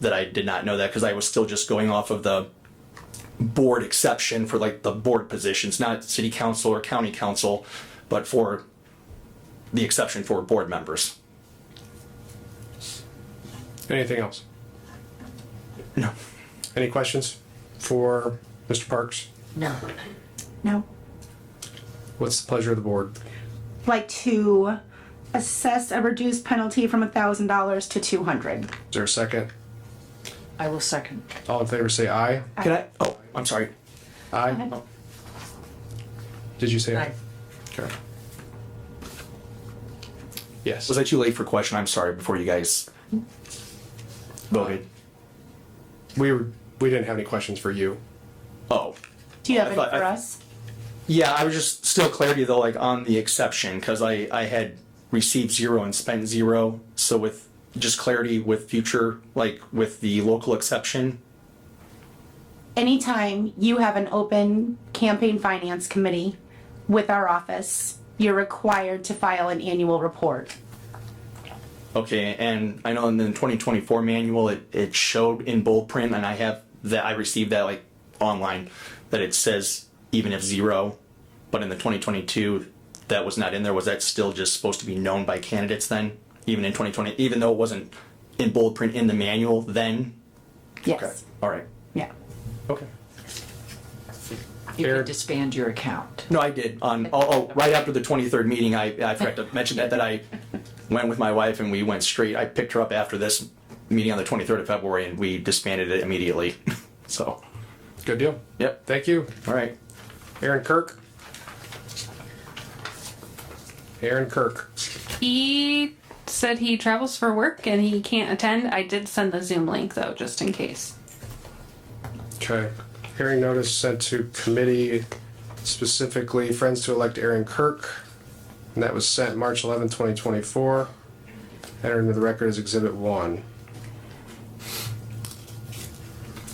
that I did not know that because I was still just going off of the board exception for like the board positions, not city council or county council, but for the exception for board members. Anything else? No. Any questions for Mr. Parks? No. No. What's the pleasure of the board? Like to assess a reduced penalty from $1,000 to 200. Is there a second? I will second. All in favor say aye. Can I? Oh, I'm sorry. Aye. Did you say aye? Okay. Yes. Was I too late for question? I'm sorry before you guys voted. We, were- we didn't have any questions for you. Oh, Do you have I any thought- for I- us? yeah. I was just still clarity though, like on the exception, because I I had received zero and spent zero. So with just clarity with future, like with the local exception. Anytime you have an open campaign finance committee with our office, you're required to file an annual report. Okay, and I know in the 2024 manual it it showed in bold print, and I have that I received that like online that it says even if zero, but in the 2022 that was not in there. Was that still just supposed to be known by candidates then? Even in 2020, even though it wasn't in bold print in the manual then. Yes. All right. Yeah. Okay. You Fair. can disband your account. No, I did. On oh, oh right after the 23rd meeting, I I forgot to mention that that I went with my wife and we went straight. I picked her up after this meeting on the 23rd of February and we disbanded it immediately. so, Good deal. yep. Thank you. All right. Aaron Kirk. Aaron Kirk. He said he travels for work and he can't attend. I did send the Zoom link though, just in case. Okay. Hearing notice sent to committee specifically Friends to Elect Aaron Kirk. And that was sent March 11, 2024. Entered into the record as Exhibit 1.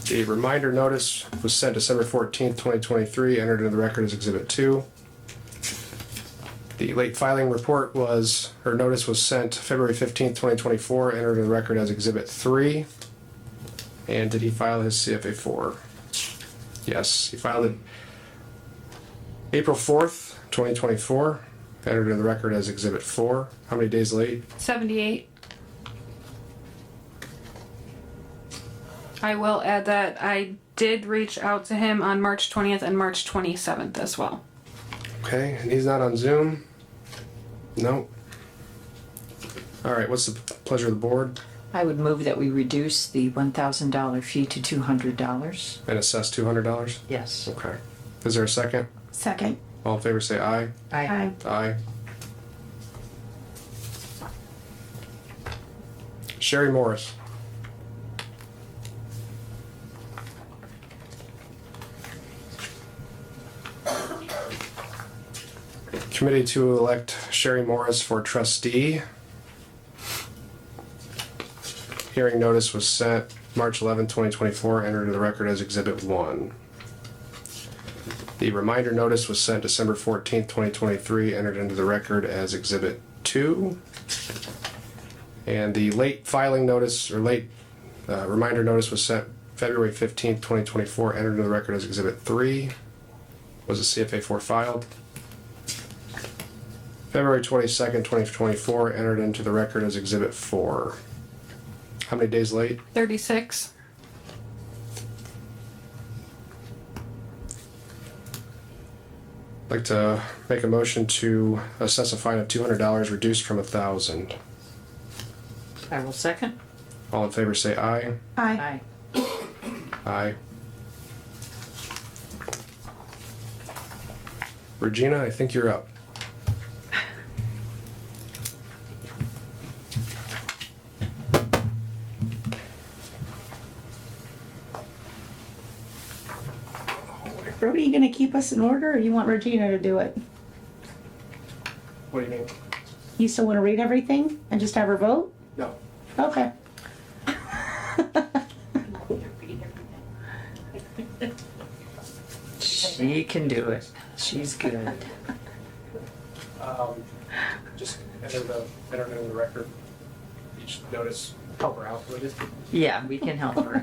The reminder notice was sent December 14, 2023. Entered into the record as Exhibit 2. The late filing report was, or notice was sent February 15, 2024. Entered into the record as Exhibit 3. And did he file his CFA four? Yes, he filed it April fourth, twenty twenty-four, entered in the record as exhibit four. How many days late? 78. I will add that I did reach out to him on March 20th and March 27th as well. Okay, and he's not on Zoom? No. All right, what's the pleasure of the board? I would move that we reduce the one thousand dollar fee to two hundred dollars. And assess two hundred dollars? Yes. Okay. Is there a second? Second. All in favor, say aye. I, Aye. Aye. Sherry Morris. Committee to elect Sherry Morris for trustee. Hearing notice was sent March 11, 2024, entered into the record as Exhibit 1. The reminder notice was sent December 14th, 2023, entered into the record as Exhibit 2. And the late filing notice, or late uh, reminder notice was sent February 15th, 2024, entered into the record as Exhibit 3. Was the CFA 4 filed? February 22nd, 2024, entered into the record as Exhibit 4. How many days late? 36. Like to make a motion to assess a fine of two hundred dollars reduced from a thousand. I will second. All in favor, say aye. Aye. I, Aye. Regina, I think you're up. Brody, you going to keep us in order or you want Regina to do it? What do you mean? You still want to read everything and just have her vote? No. Okay. she can do it. She's good. Um, just enter the, enter it in the record. Each notice help her out with this. Yeah, we can help her.